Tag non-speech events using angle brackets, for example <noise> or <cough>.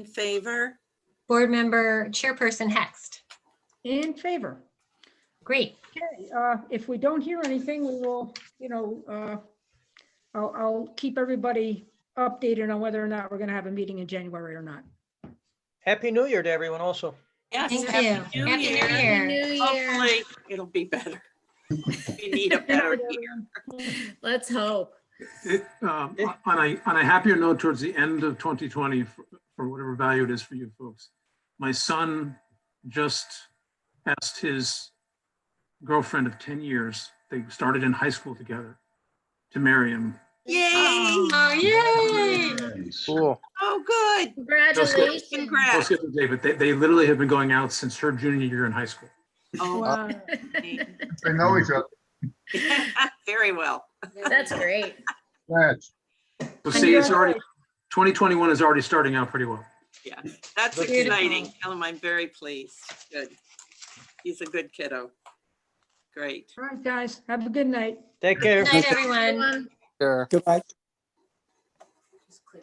In favor? Board Member Chairperson Hext. In favor. Great. Okay, uh, if we don't hear anything, we will, you know, uh, I'll, I'll keep everybody updated on whether or not we're going to have a meeting in January or not. Happy New Year to everyone also. Yes. Thank Happy you. Happy New Year. Hopefully, it'll be better. We need a <laughs> better year. Let's hope. It, um, On a, on a happier note, towards the end of 2020, for for whatever value it is for you folks, my son just asked his girlfriend of 10 years, they started in high school together, to marry him. Yay! Oh, yay. Cool. Oh, good. Congratulations. Just Congrats. the other day, But they, they literally have been going out since her junior year in high school. Oh, Wow. They know each other. <laughs> Very well. That's great. That's So see, it's already, 2021 is already starting out pretty well. That's Good. Beautiful. exciting. Tell him I'm very pleased. Good. He's a good kiddo. Great. All right, guys, have a good night. Take care. Good night, everyone. Sure. Goodbye.